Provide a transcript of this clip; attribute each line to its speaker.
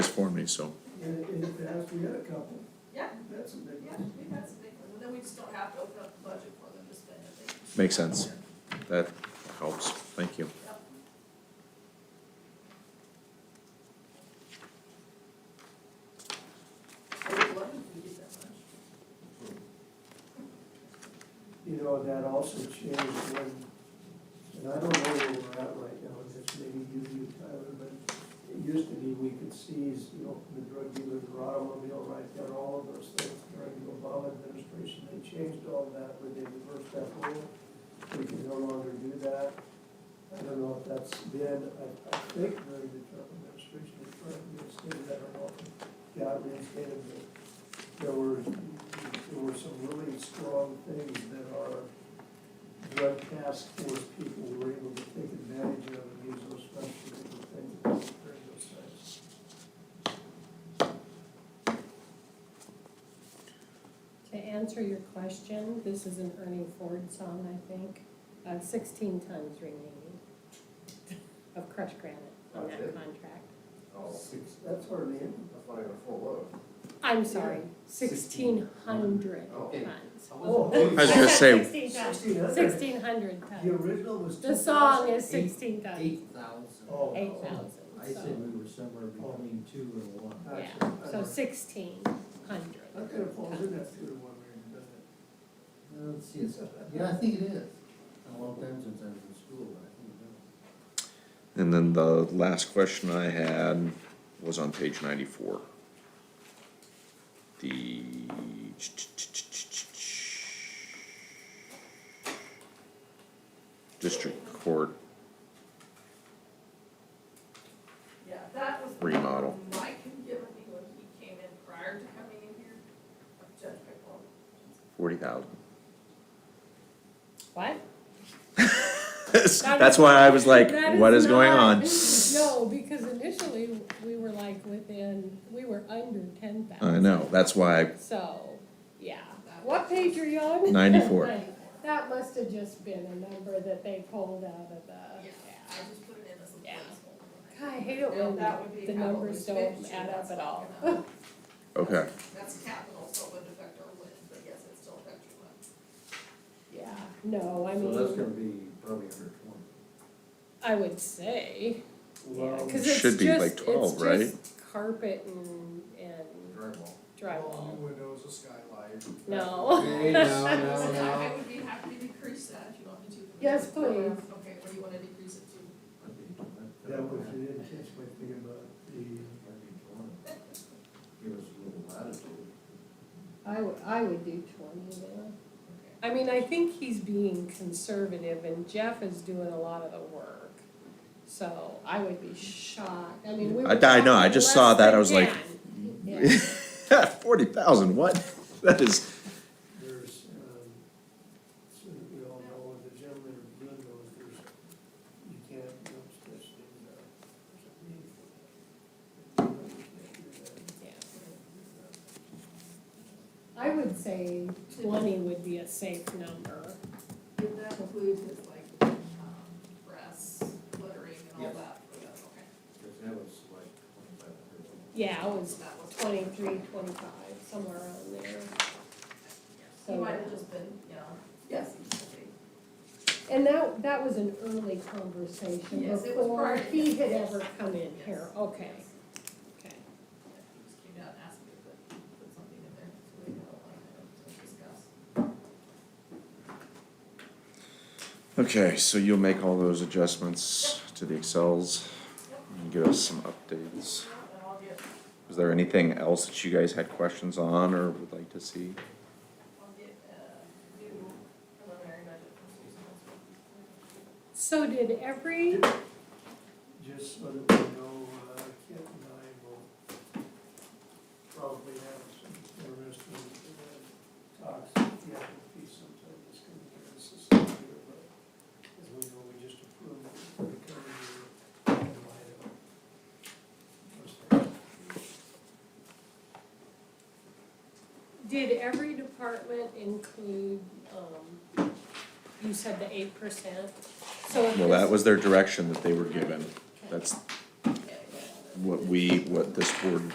Speaker 1: so.
Speaker 2: And in the past, we had a couple,
Speaker 3: Yeah,
Speaker 2: that's a big
Speaker 3: yeah,
Speaker 2: one.
Speaker 3: we had some big ones, and then we just don't have to open up the budget for them to spend it.
Speaker 1: Makes sense. That helps, thank you.
Speaker 3: Yep. I would love if we did that much.
Speaker 2: You know, that also changed when, and I don't know where we're at right now, and it's maybe you, you, Tyler, but it used to be we could seize, you know, the drug dealers, their automobile right there, all of those things during the Obama administration. They changed all that when they reversed that rule. We can no longer do that. I don't know if that's been, I, I think during the Trump administration, they tried to reinstate that or not. Got reinstated, but there were, there were some really strong things that our drug task force people were able to take advantage of and use those funds for different things during those times.
Speaker 4: To answer your question, this is an Ernie Ford song, I think, uh, sixteen tons remaining of crushed granite on
Speaker 5: That's
Speaker 4: that
Speaker 5: it?
Speaker 4: contract.
Speaker 5: Oh,
Speaker 2: Six, that's our name.
Speaker 5: that's not even a full load.
Speaker 4: I'm sorry, sixteen hundred
Speaker 5: Okay.
Speaker 4: tons.
Speaker 1: I was gonna say,
Speaker 4: Sixteen tons.
Speaker 2: Sixteen hundred.
Speaker 4: Sixteen hundred
Speaker 2: The
Speaker 4: tons.
Speaker 2: original was two
Speaker 4: The
Speaker 2: thousand.
Speaker 4: song is sixteen tons,
Speaker 6: Eight thousand.
Speaker 2: Oh.
Speaker 4: eight
Speaker 6: I
Speaker 4: thousand,
Speaker 6: said
Speaker 4: so,
Speaker 6: we were somewhere between two and one.
Speaker 2: Gotcha.
Speaker 4: yeah, so sixteen
Speaker 2: That kind of falls in
Speaker 4: hundred.
Speaker 2: that two to one range, doesn't it?
Speaker 6: Uh, Let's see, it's, yeah, I think it is. A long time since I was in school, but I think it is.
Speaker 1: And then the last question I had was on page ninety-four. The. District Court,
Speaker 3: Yeah, that was. the
Speaker 1: Remodel.
Speaker 3: number Mike had given me when he came in prior to coming in here, of Judge Pickle.
Speaker 1: forty thousand.
Speaker 4: What?
Speaker 1: That's why I was like,
Speaker 4: That
Speaker 1: what is going
Speaker 4: not-
Speaker 1: on?
Speaker 4: No, because initially, we were like within, we were under ten thousand.
Speaker 1: I know, that's why,
Speaker 4: So, yeah, what page are you on?
Speaker 1: 94.
Speaker 4: That must have just been a number that they pulled out of the,
Speaker 3: Yeah, I
Speaker 4: yeah.
Speaker 3: just put it in as a
Speaker 4: Yeah.
Speaker 3: placeholder.
Speaker 4: God, I hate it
Speaker 3: Bill,
Speaker 4: when
Speaker 3: that would be
Speaker 4: the
Speaker 3: how it
Speaker 4: numbers
Speaker 3: was
Speaker 4: don't
Speaker 3: mentioned,
Speaker 4: add
Speaker 3: that's
Speaker 4: up at
Speaker 3: not
Speaker 4: all.
Speaker 3: gonna-
Speaker 1: okay,
Speaker 3: That's capital, so it wouldn't affect our lid, but yes, it still affects your lid.
Speaker 4: Yeah, no, I
Speaker 6: So that's gonna
Speaker 4: mean,
Speaker 6: be probably under twenty.
Speaker 4: I would say, yeah,
Speaker 2: Well,
Speaker 4: cause
Speaker 1: It
Speaker 4: it's
Speaker 1: should
Speaker 4: just,
Speaker 1: be like
Speaker 4: it's
Speaker 1: 12, right?
Speaker 4: just carpet and, and
Speaker 6: Drywall.
Speaker 4: drywall.
Speaker 7: Windows, a skylight.
Speaker 4: No.
Speaker 6: Hey, no, no,
Speaker 3: So I
Speaker 6: no.
Speaker 3: would be happy to decrease that if you want me to.
Speaker 4: Yes, please.
Speaker 3: Okay, what do you wanna decrease it to?
Speaker 2: that was
Speaker 6: That'd
Speaker 2: an intense way to think about the,
Speaker 6: be twenty. Give us a little latitude.
Speaker 4: I would, I would do twenty then.
Speaker 3: Okay.
Speaker 4: I mean, I think he's being conservative and Jeff is doing a lot of the work. So I would be shocked, I mean, we were.
Speaker 1: I- I know, I
Speaker 4: talking
Speaker 1: just saw
Speaker 4: less
Speaker 1: that, I
Speaker 4: than
Speaker 1: was like-
Speaker 4: 10. Yeah.
Speaker 1: forty thousand, what? That is,
Speaker 2: there's, um, so that we all know, the gentleman in blue knows, there's, you can't, you know, especially in, uh, there's a meeting for that. You know, you can't do that.
Speaker 4: Yeah.
Speaker 2: Uh,
Speaker 4: I would say twenty would be a safe number.
Speaker 3: Did that include his like, um, brass lettering and all
Speaker 6: Yes.
Speaker 3: that for that, okay?
Speaker 6: Cause that was like twenty-five hundred.
Speaker 4: Yeah, it was
Speaker 3: That was-
Speaker 4: twenty-three, twenty-five, somewhere around there.
Speaker 3: He
Speaker 4: So-
Speaker 3: might have just been, you know, yes, okay.
Speaker 4: And that, that was an early conversation
Speaker 3: Yes, it was prior
Speaker 4: before
Speaker 3: to
Speaker 4: he
Speaker 3: that,
Speaker 4: had
Speaker 3: yes.
Speaker 4: ever come in here,
Speaker 3: Yes,
Speaker 4: okay,
Speaker 3: yes.
Speaker 4: okay.
Speaker 3: Yeah, He just came down and asked me to put, put something in there, so we had a line item to discuss.
Speaker 1: okay, so you'll make all those adjustments to the Excels and get us some updates.
Speaker 3: And I'll get,
Speaker 1: Was there anything else that you guys had questions on or would like to see?
Speaker 3: I'll get, uh, new preliminary budget from Susan as
Speaker 4: So
Speaker 3: well.
Speaker 4: did every,
Speaker 2: Just so that we know, uh, Kent and I will probably have some interesting uh, talks, yeah, it'll be sometime this coming year, this is the year, but as we know, we just approved it for the coming year, in light of those things.
Speaker 4: did every department include, um, you said the eight percent? So if
Speaker 1: Well, that
Speaker 4: this-
Speaker 1: was their direction that they were given. That's
Speaker 3: Okay, yeah, that's-
Speaker 1: what we, what this board